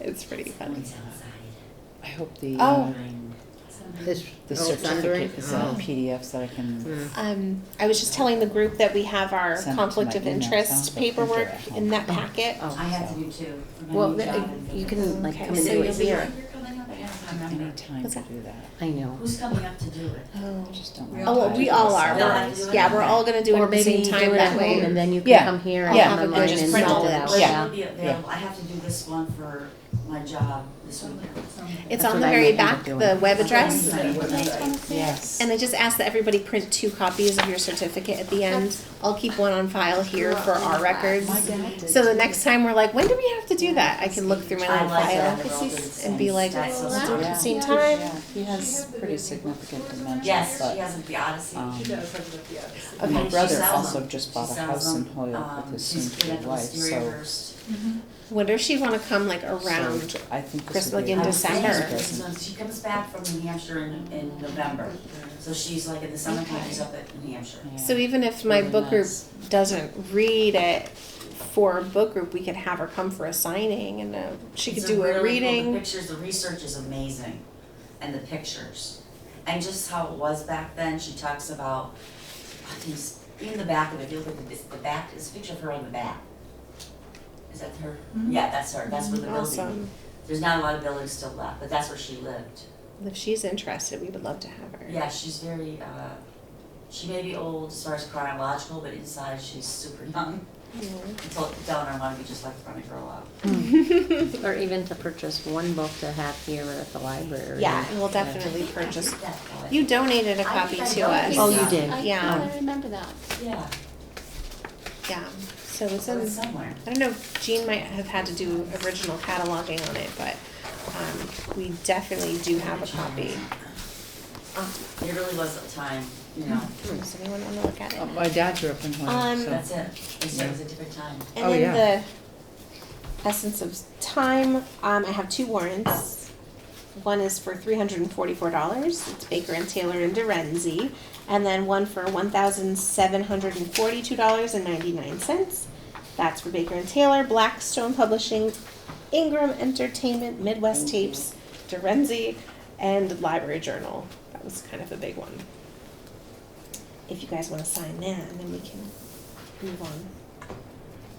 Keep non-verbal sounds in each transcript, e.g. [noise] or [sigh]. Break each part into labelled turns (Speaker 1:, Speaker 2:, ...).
Speaker 1: It's pretty funny.
Speaker 2: It's outside.
Speaker 3: I hope the,
Speaker 1: Oh.
Speaker 3: uh,
Speaker 2: Mine.
Speaker 3: this, the
Speaker 2: Oh, it's under it?
Speaker 3: certificate is in
Speaker 2: Oh.
Speaker 3: PDFs that I
Speaker 4: hmm.
Speaker 3: can,
Speaker 2: Mm.
Speaker 1: Um, I was just telling the group that we have our
Speaker 3: Send it to
Speaker 1: conflict
Speaker 3: my
Speaker 1: of
Speaker 3: email. Sounds
Speaker 1: interest
Speaker 3: like they're
Speaker 1: paperwork
Speaker 3: at home.
Speaker 1: in that packet.
Speaker 2: I have to do two. for my
Speaker 4: Well,
Speaker 2: new
Speaker 4: th-
Speaker 2: job in
Speaker 4: you
Speaker 2: Vegas.
Speaker 4: can like
Speaker 1: Okay,
Speaker 4: come and
Speaker 1: so
Speaker 4: do it here.
Speaker 2: You're coming up? I can't remember.
Speaker 3: any time
Speaker 1: What's
Speaker 3: to
Speaker 1: that?
Speaker 3: do that.
Speaker 4: I know.
Speaker 2: Who's coming up to do it?
Speaker 1: Oh,
Speaker 3: I just don't.
Speaker 2: Oh,
Speaker 3: know
Speaker 1: oh
Speaker 3: how
Speaker 1: well,
Speaker 3: to
Speaker 1: we
Speaker 3: do
Speaker 1: all
Speaker 3: this.
Speaker 1: are.
Speaker 2: No,
Speaker 1: We're-
Speaker 2: I do it
Speaker 1: yeah, we're
Speaker 2: online.
Speaker 1: all gonna do it
Speaker 4: Or
Speaker 1: at the
Speaker 4: maybe
Speaker 1: same
Speaker 4: you do
Speaker 1: time
Speaker 4: it at
Speaker 1: that
Speaker 4: home and
Speaker 1: way.
Speaker 4: then you
Speaker 3: Yeah.
Speaker 4: can come here and
Speaker 3: Yeah.
Speaker 4: come
Speaker 1: Have a good
Speaker 4: online
Speaker 1: just
Speaker 4: and
Speaker 1: print
Speaker 4: send
Speaker 1: all
Speaker 4: it
Speaker 1: of
Speaker 4: out.
Speaker 1: those.
Speaker 3: Yeah.
Speaker 4: Yeah.
Speaker 2: Will be available. I have to do this one for my job this week.
Speaker 1: It's
Speaker 4: That's
Speaker 1: on
Speaker 4: what
Speaker 1: the
Speaker 4: I
Speaker 1: very
Speaker 4: might end
Speaker 1: back,
Speaker 4: up doing.
Speaker 1: the web address.
Speaker 3: Yes.
Speaker 1: And I just ask that everybody print two copies of your certificate at the end. I'll keep one on file here for our records.
Speaker 2: My dad did.
Speaker 1: So the next time we're like, when do we have to do that? I can look through my
Speaker 2: I
Speaker 1: little
Speaker 2: like that.
Speaker 1: file
Speaker 2: they're all doing the same.
Speaker 1: and be like,
Speaker 2: That's so
Speaker 1: let's do it at
Speaker 3: Yeah.
Speaker 1: the same
Speaker 3: Yeah,
Speaker 1: time.
Speaker 3: he has pretty significant dementia,
Speaker 2: Yes,
Speaker 3: but,
Speaker 2: she has a Biodyssey.
Speaker 3: um,
Speaker 1: Okay.
Speaker 3: my
Speaker 2: She
Speaker 3: brother
Speaker 2: sells
Speaker 3: also
Speaker 2: them.
Speaker 3: just
Speaker 2: She
Speaker 3: bought a
Speaker 2: sells
Speaker 3: house in
Speaker 2: them.
Speaker 3: Holyoke
Speaker 2: Um,
Speaker 3: with his
Speaker 2: she's been at
Speaker 3: soon-to-be
Speaker 2: the
Speaker 3: wife,
Speaker 2: Wisteria
Speaker 3: so.
Speaker 2: Rehearsed.
Speaker 1: Wonder if she wanna come like
Speaker 3: so
Speaker 1: around.
Speaker 3: I think this
Speaker 1: Christmas,
Speaker 3: would be.
Speaker 1: like, in
Speaker 3: a
Speaker 2: I
Speaker 3: good
Speaker 2: was thinking
Speaker 1: December.
Speaker 3: present.
Speaker 2: because Um, She comes back from New Hampshire in, in November, so she's like in the summertime, she's up at New Hampshire.
Speaker 3: Yeah.
Speaker 1: So even if my
Speaker 3: Really
Speaker 1: book group
Speaker 3: nice.
Speaker 1: doesn't read it for a book group, we could have her come for a signing and uh she could
Speaker 2: It's a
Speaker 1: do a
Speaker 2: really cool- The
Speaker 1: reading.
Speaker 2: pictures, the research is amazing, and the pictures, and just how it was back then, she talks about, oh, these, in the back of it, if you look at this, the back, it's a picture of her on the back. Is that her? Yeah, that's her, that's where the building,
Speaker 1: Hmm? Awesome.
Speaker 2: there's not a lot of buildings still left, but that's where she lived.
Speaker 1: If she's interested, we would love to have her.
Speaker 2: Yeah, she's very, uh, she may be old as far as chronological, but inside she's super young. [laughs] Until down I want to be just like the running girl out.
Speaker 4: Or even to purchase one book to have here or at the library.
Speaker 1: Yeah, and we'll definitely purchase.
Speaker 2: That thought.
Speaker 1: You donated a
Speaker 2: I
Speaker 1: copy
Speaker 2: think I
Speaker 1: to us.
Speaker 2: donated
Speaker 4: Oh, you did?
Speaker 5: I-
Speaker 1: Yeah.
Speaker 5: I remember that.
Speaker 2: Yeah,
Speaker 1: Yeah, so it's
Speaker 2: so
Speaker 1: in,
Speaker 2: it's somewhere.
Speaker 1: I don't know, Jean might have had to do original cataloging on it, but, um, we definitely do have a copy.
Speaker 2: Uh-huh.
Speaker 1: Um,
Speaker 2: It really was a time, you know,
Speaker 1: Hmm, Does anyone wanna look at it?
Speaker 3: Uh, My dad grew up in
Speaker 1: Um,
Speaker 3: Holyoke, so.
Speaker 2: that's it. It's- It was a different time.
Speaker 1: And
Speaker 3: Oh,
Speaker 1: then
Speaker 3: yeah.
Speaker 1: the essence of time, um, I have two warrants. One is for three hundred and forty-four dollars. It's Baker and Taylor and Dorenzi, and then one for one thousand seven hundred and forty-two dollars and ninety-nine cents. That's for Baker and Taylor, Blackstone Publishing, Ingram Entertainment, Midwest Tapes, Dorenzi, and Library Journal. That was kind of a big one. If you guys want to sign that, and then we can move on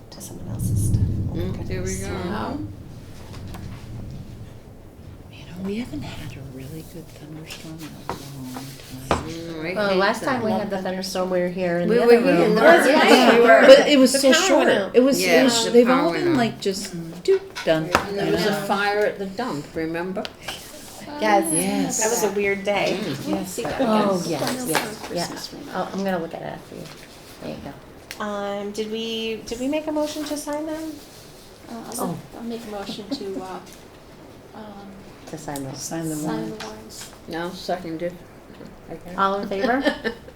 Speaker 1: to someone else's stuff. Oh my
Speaker 4: Mm, there we
Speaker 1: goodness.
Speaker 4: go. Wow.
Speaker 3: You know, we haven't had a really good thunderstorm in a long time.
Speaker 4: Well, last time we had the thunderstorm, we were here in
Speaker 6: We
Speaker 4: the
Speaker 6: were
Speaker 4: other
Speaker 6: here in
Speaker 4: room.
Speaker 6: the
Speaker 1: other room. Yeah. We were-
Speaker 4: But
Speaker 6: But it was
Speaker 1: The
Speaker 6: so
Speaker 1: power
Speaker 6: short.
Speaker 1: went out.
Speaker 6: It was,
Speaker 4: Yeah,
Speaker 6: it was
Speaker 4: the
Speaker 6: they've
Speaker 4: power
Speaker 6: all
Speaker 4: went
Speaker 6: been
Speaker 4: out.
Speaker 6: like just doop done.
Speaker 4: There was a
Speaker 1: Yeah.
Speaker 4: fire at the dump, remember?
Speaker 1: Yes.
Speaker 3: Yes.
Speaker 1: That was a weird day.
Speaker 3: Yes, that
Speaker 4: [laughs] Oh,
Speaker 3: was.
Speaker 5: Um,
Speaker 4: yes, yes,
Speaker 3: Christmas
Speaker 4: yes.
Speaker 3: ring.
Speaker 4: Oh, I'm gonna look at it after you. There you go.
Speaker 1: Um, did we, did we make a motion to sign them?
Speaker 5: Uh,
Speaker 4: Oh.
Speaker 5: I'll, I'll make a motion to, uh, um,
Speaker 4: To sign those.
Speaker 3: Sign the
Speaker 5: sign the
Speaker 3: warrant.
Speaker 5: warrants.
Speaker 6: No, seconded.
Speaker 4: All in [laughs] favor?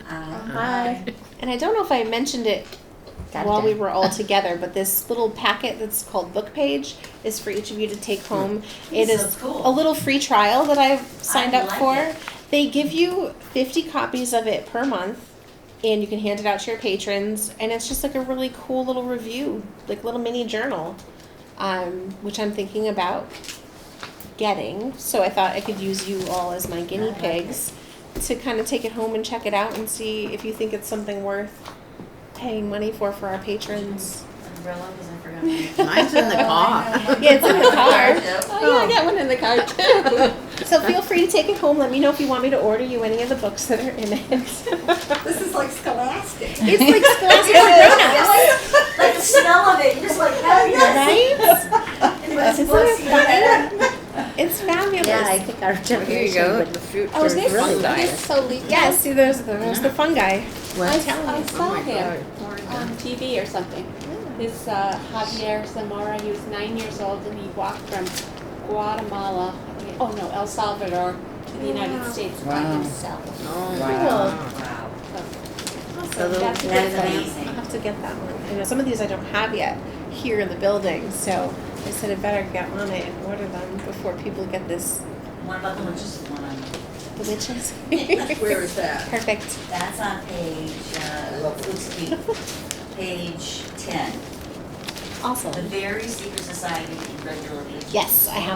Speaker 2: Uh,
Speaker 5: Aye.
Speaker 1: And I don't know if I mentioned it
Speaker 4: Got it
Speaker 1: while we
Speaker 4: down.
Speaker 1: were all together, but this little packet that's called Book Page is for each of you to take home.
Speaker 4: Hmm.
Speaker 1: It
Speaker 2: This
Speaker 1: is
Speaker 2: is cool.
Speaker 1: a little free trial that I've signed
Speaker 2: I
Speaker 1: up
Speaker 2: like
Speaker 1: for.
Speaker 2: it.
Speaker 1: They give you 50 copies of it per month, and you can hand it out to your patrons. And it's just like a really cool little review, like little mini journal, um, which I'm thinking about getting. So I thought I could use you all as my guinea
Speaker 2: like
Speaker 1: pigs to kind of take it home and check it out and see if you think it's something worth paying money for for our patrons.
Speaker 2: umbrella, 'cause I
Speaker 1: [laughs]
Speaker 2: forgot.
Speaker 6: Mine's in the car.
Speaker 1: Yeah, it's in the car.
Speaker 2: [laughs] Yep.
Speaker 1: Oh, yeah, I got one in the car too. so feel free to take it home. Let me know if you want me to order you any of the books that are in [laughs] it. it's like
Speaker 2: This is like scholastic.
Speaker 1: Scholastic for
Speaker 2: Like the smell of it, you're just like, oh, yes.
Speaker 1: grown-ups, right?
Speaker 2: And when it's
Speaker 1: Isn't
Speaker 2: books,
Speaker 1: it
Speaker 2: you know,
Speaker 1: It's fabulous.
Speaker 4: Yeah, I think our
Speaker 6: Here you
Speaker 4: generation
Speaker 6: go.
Speaker 4: would.
Speaker 6: The fruit
Speaker 1: Oh, is
Speaker 6: for
Speaker 1: this-
Speaker 6: really
Speaker 4: is
Speaker 6: nice.
Speaker 5: It's so leaked.
Speaker 1: yeah, see, there's the, there's the fungi.
Speaker 4: What?
Speaker 5: I I saw him
Speaker 6: God.
Speaker 5: on TV or something. This uh, Javier Zamora, he was nine years old and he walked from Guatemala, oh no, El Salvador to the United
Speaker 1: Wow.
Speaker 5: States by
Speaker 3: Wow.
Speaker 5: himself.
Speaker 6: Oh,
Speaker 1: Cool.
Speaker 2: Wow,
Speaker 4: So the-
Speaker 1: That's a good
Speaker 2: that's
Speaker 1: one.
Speaker 2: amazing.
Speaker 1: I'll have to get that one. I know some of these I don't have yet here in the building, so I said I better get on it and order them before people get this
Speaker 2: One about the witches, one on,
Speaker 1: the witches.
Speaker 6: Where is
Speaker 1: [laughs]
Speaker 6: that?
Speaker 1: Perfect.
Speaker 2: that's on page, uh, let's see, page ten.
Speaker 1: Awesome.
Speaker 2: The Very Secret Society in Red Building.
Speaker 1: Yes, I have